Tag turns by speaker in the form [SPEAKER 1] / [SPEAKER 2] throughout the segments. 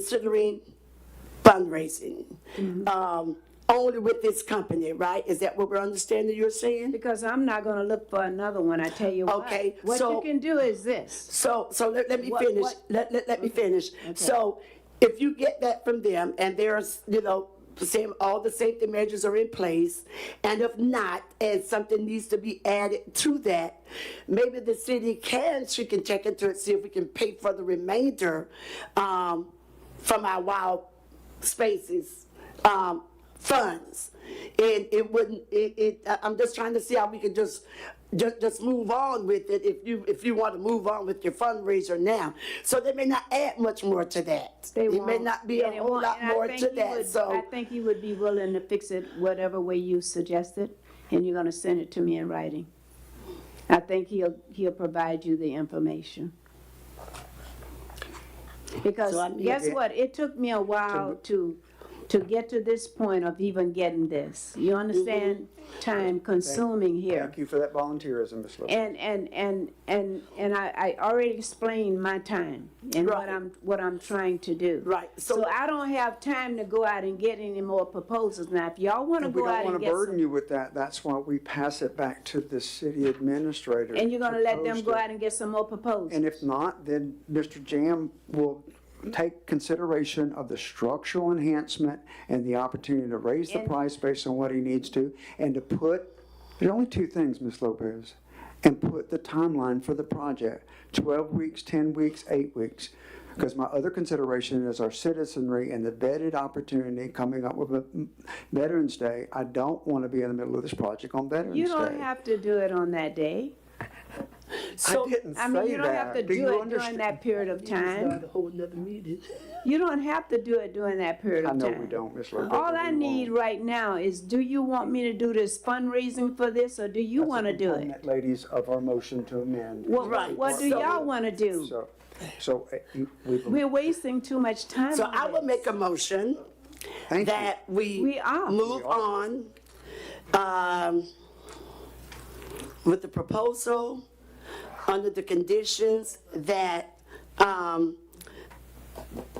[SPEAKER 1] considering fundraising,
[SPEAKER 2] Mm-hmm.
[SPEAKER 1] um, only with this company, right? Is that what we're understanding you're saying?
[SPEAKER 2] Because I'm not gonna look for another one, I tell you what.
[SPEAKER 1] Okay,
[SPEAKER 2] What
[SPEAKER 1] so-
[SPEAKER 2] you can do is this.
[SPEAKER 1] So, so let, let me
[SPEAKER 2] What-
[SPEAKER 1] finish,
[SPEAKER 2] what-
[SPEAKER 1] let, let, let me finish. So if you get that from them and there's, you know, same, all the safety measures are in place, and if not, and something needs to be added to that, maybe the city can, she can check into it, see if we can pay for the remainder, um, from our wild spaces, um, funds. And it wouldn't, it, it, I- I'm just trying to see how we could just, just, just move on with it if you, if you want to move on with your fundraiser now. So they may not add much more to that.
[SPEAKER 2] They
[SPEAKER 1] It may
[SPEAKER 2] won't.
[SPEAKER 1] not be
[SPEAKER 2] Yeah,
[SPEAKER 1] a
[SPEAKER 2] they
[SPEAKER 1] whole
[SPEAKER 2] won't.
[SPEAKER 1] lot
[SPEAKER 2] And I
[SPEAKER 1] more
[SPEAKER 2] think
[SPEAKER 1] to
[SPEAKER 2] you
[SPEAKER 1] that,
[SPEAKER 2] would-
[SPEAKER 1] so.
[SPEAKER 2] I think you would be willing to fix it whatever way you suggested, and you're gonna send it to me in writing. I think he'll, he'll provide you the information. Because
[SPEAKER 1] So I need
[SPEAKER 2] guess
[SPEAKER 1] it
[SPEAKER 2] what? It took me a while to, to get to this point of even getting this. You understand?
[SPEAKER 1] Mm-hmm.
[SPEAKER 2] Time consuming here.
[SPEAKER 3] Thank you for that volunteerism, Ms. Lewis.
[SPEAKER 2] And, and, and, and, and I, I already explained my time and what
[SPEAKER 1] Right.
[SPEAKER 2] I'm, what I'm trying to do.
[SPEAKER 1] Right, so-
[SPEAKER 2] So I don't have time to go out and get any more proposals. Now, if y'all wanna
[SPEAKER 3] We
[SPEAKER 2] go
[SPEAKER 3] don't
[SPEAKER 2] out
[SPEAKER 3] want
[SPEAKER 2] and
[SPEAKER 3] to
[SPEAKER 2] get
[SPEAKER 3] burden
[SPEAKER 2] some,
[SPEAKER 3] you with that. That's why we pass it back to the city administrator.
[SPEAKER 2] and you're gonna
[SPEAKER 3] to
[SPEAKER 2] let them
[SPEAKER 3] post
[SPEAKER 2] go
[SPEAKER 3] it.
[SPEAKER 2] out and get some more proposals.
[SPEAKER 3] And if not, then Mr. Jam will take consideration of the structural enhancement and the opportunity to raise the
[SPEAKER 2] And-
[SPEAKER 3] price based on what he needs to, and to put, there's only two things, Ms. Lopez, and put the timeline for the project, 12 weeks, 10 weeks, eight weeks. Because my other consideration is our citizenry and the vetted opportunity coming up with a- Veterans Day. I don't want to be in the middle of this project on Veterans Day.
[SPEAKER 2] You don't have to do it on that day.
[SPEAKER 3] I didn't
[SPEAKER 2] I mean,
[SPEAKER 3] say
[SPEAKER 2] you don't have to
[SPEAKER 3] that. Do
[SPEAKER 2] do
[SPEAKER 3] you
[SPEAKER 2] it during
[SPEAKER 3] understand?
[SPEAKER 2] that period of time.
[SPEAKER 1] a whole nother meeting.
[SPEAKER 2] You don't have to do it during that period
[SPEAKER 3] I
[SPEAKER 2] of
[SPEAKER 3] know
[SPEAKER 2] time.
[SPEAKER 3] we don't, Ms. Lopez.
[SPEAKER 2] All
[SPEAKER 3] but
[SPEAKER 2] I
[SPEAKER 3] we
[SPEAKER 2] need
[SPEAKER 3] won't.
[SPEAKER 2] right now is, do you want me to do this fundraising for this, or do you wanna do it?
[SPEAKER 3] Comment, Ladies, of our motion to amend.
[SPEAKER 2] What,
[SPEAKER 1] Right,
[SPEAKER 2] what do
[SPEAKER 1] so-
[SPEAKER 2] y'all wanna do?
[SPEAKER 3] So, so uh, you- we,
[SPEAKER 2] We're wasting too much time.
[SPEAKER 1] So
[SPEAKER 2] on
[SPEAKER 1] I will
[SPEAKER 2] this.
[SPEAKER 1] make a motion
[SPEAKER 3] thank you.
[SPEAKER 1] that we.
[SPEAKER 2] We are.
[SPEAKER 1] Move on, um, with the proposal, under the conditions that, um,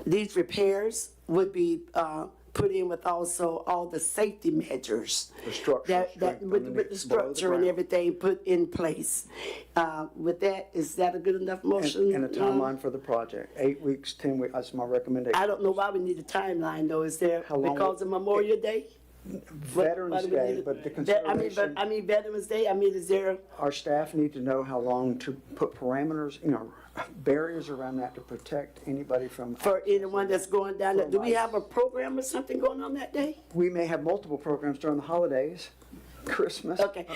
[SPEAKER 1] these repairs would be, uh, put in with also all the safety measures.
[SPEAKER 3] The structural
[SPEAKER 1] That, that,
[SPEAKER 3] strength
[SPEAKER 1] with, with the
[SPEAKER 3] underneath, below the
[SPEAKER 1] structure and
[SPEAKER 3] ground.
[SPEAKER 1] everything put in place. Uh, with that, is that a good enough motion?
[SPEAKER 3] And a
[SPEAKER 1] Um,
[SPEAKER 3] timeline for the project, eight weeks, 10 weeks, that's my recommendation.
[SPEAKER 1] I don't know why we need a timeline though, is there,
[SPEAKER 3] How long
[SPEAKER 1] because of
[SPEAKER 3] would-
[SPEAKER 1] Memorial Day? Why
[SPEAKER 3] Veterans
[SPEAKER 1] do we need
[SPEAKER 3] Day,
[SPEAKER 1] it?
[SPEAKER 3] but the
[SPEAKER 1] Ve- I mean, but,
[SPEAKER 3] consideration,
[SPEAKER 1] I mean Veterans Day, I mean, is there,
[SPEAKER 3] our staff need to know how long to put parameters, you know, barriers around that to protect anybody from.
[SPEAKER 1] for anyone that's going down, there- do we
[SPEAKER 3] Right.
[SPEAKER 1] have a program or something going on that day?
[SPEAKER 3] We may have multiple programs during the holidays, Christmas.
[SPEAKER 1] Okay,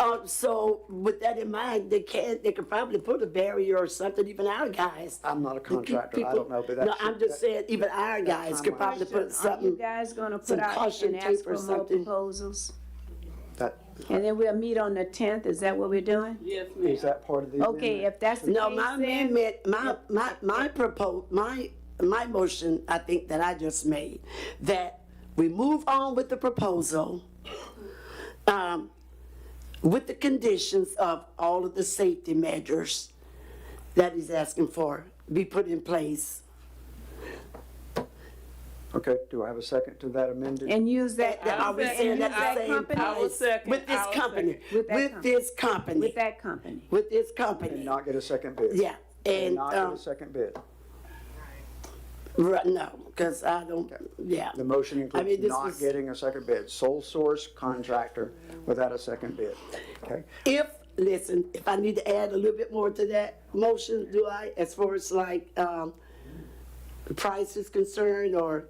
[SPEAKER 1] um, so with that in mind, they can, they could probably put a barrier or something, even our guys.
[SPEAKER 3] I'm not a
[SPEAKER 1] to keep
[SPEAKER 3] contractor, I
[SPEAKER 1] people-
[SPEAKER 3] don't know, but
[SPEAKER 1] No,
[SPEAKER 3] that's.
[SPEAKER 1] I'm just saying, even our guys could
[SPEAKER 3] timeline.
[SPEAKER 1] probably put
[SPEAKER 2] Are you
[SPEAKER 1] something,
[SPEAKER 2] guys gonna put
[SPEAKER 1] some
[SPEAKER 2] out
[SPEAKER 1] caution
[SPEAKER 2] and ask
[SPEAKER 1] tape or
[SPEAKER 2] for more
[SPEAKER 1] something.
[SPEAKER 2] proposals?
[SPEAKER 3] That,
[SPEAKER 2] And then we'll meet on the tenth, is that what we're doing?
[SPEAKER 3] is that part of the
[SPEAKER 2] Okay,
[SPEAKER 3] amendment?
[SPEAKER 2] if that's the case
[SPEAKER 1] no, my
[SPEAKER 2] then,
[SPEAKER 1] amendment, my, my, my propos, my, my motion, I think that I just made, that we move on with the proposal, um, with the conditions of all of the safety measures that he's asking for be put in place.
[SPEAKER 3] Okay, do I have a second to that amended?
[SPEAKER 2] And use that,
[SPEAKER 1] That I was
[SPEAKER 2] and
[SPEAKER 1] saying
[SPEAKER 2] use
[SPEAKER 1] that the
[SPEAKER 2] that
[SPEAKER 1] same
[SPEAKER 2] company-
[SPEAKER 4] I will
[SPEAKER 1] place.
[SPEAKER 4] second,
[SPEAKER 1] With this
[SPEAKER 4] I will
[SPEAKER 1] company,
[SPEAKER 4] second.
[SPEAKER 2] With that
[SPEAKER 1] with
[SPEAKER 2] company.
[SPEAKER 1] this company,
[SPEAKER 2] with that company.
[SPEAKER 1] with this company,
[SPEAKER 3] Not get a second bid?
[SPEAKER 1] yeah, and,
[SPEAKER 3] Not get
[SPEAKER 1] um,
[SPEAKER 3] a second bid?
[SPEAKER 1] right, no, because I don't, yeah.
[SPEAKER 3] The motion
[SPEAKER 1] I mean,
[SPEAKER 3] includes
[SPEAKER 1] this
[SPEAKER 3] not
[SPEAKER 1] was-
[SPEAKER 3] getting a second bid, sole source contractor without a second bid, okay?
[SPEAKER 1] If, listen, if I need to add a little bit more to that motion, do I, as far as like, um, the price is concerned, or,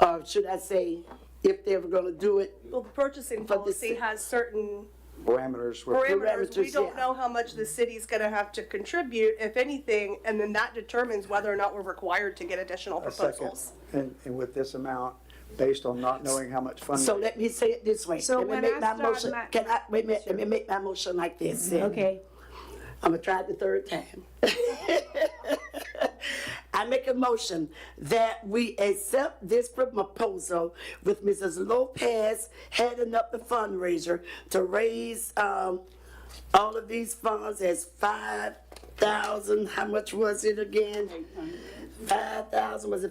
[SPEAKER 1] or should I say, if they were gonna do it?
[SPEAKER 5] Well, the purchasing
[SPEAKER 1] But the
[SPEAKER 5] policy
[SPEAKER 1] ci-
[SPEAKER 5] has certain
[SPEAKER 3] Parameters were,
[SPEAKER 5] parameters. We
[SPEAKER 1] Parameters,
[SPEAKER 5] don't
[SPEAKER 1] yeah.
[SPEAKER 5] know how much the city's gonna have to contribute, if anything, and then that determines whether or not we're required to get additional
[SPEAKER 3] a second,
[SPEAKER 5] proposals.
[SPEAKER 3] and, and with this amount, based on not knowing how much funding.
[SPEAKER 1] So let me say it this way.
[SPEAKER 2] So
[SPEAKER 1] Let me
[SPEAKER 2] when
[SPEAKER 1] make
[SPEAKER 2] I
[SPEAKER 1] my
[SPEAKER 2] start
[SPEAKER 1] motion.
[SPEAKER 2] my-
[SPEAKER 1] Can I, wait a minute, let me make my motion like this then.
[SPEAKER 2] Okay,
[SPEAKER 1] I'm gonna try it the third time. I make a motion that we accept this proposal with Mrs. Lopez heading up the fundraiser to raise, um, all of these funds as five thousand, how much was it again? Five thousand, was it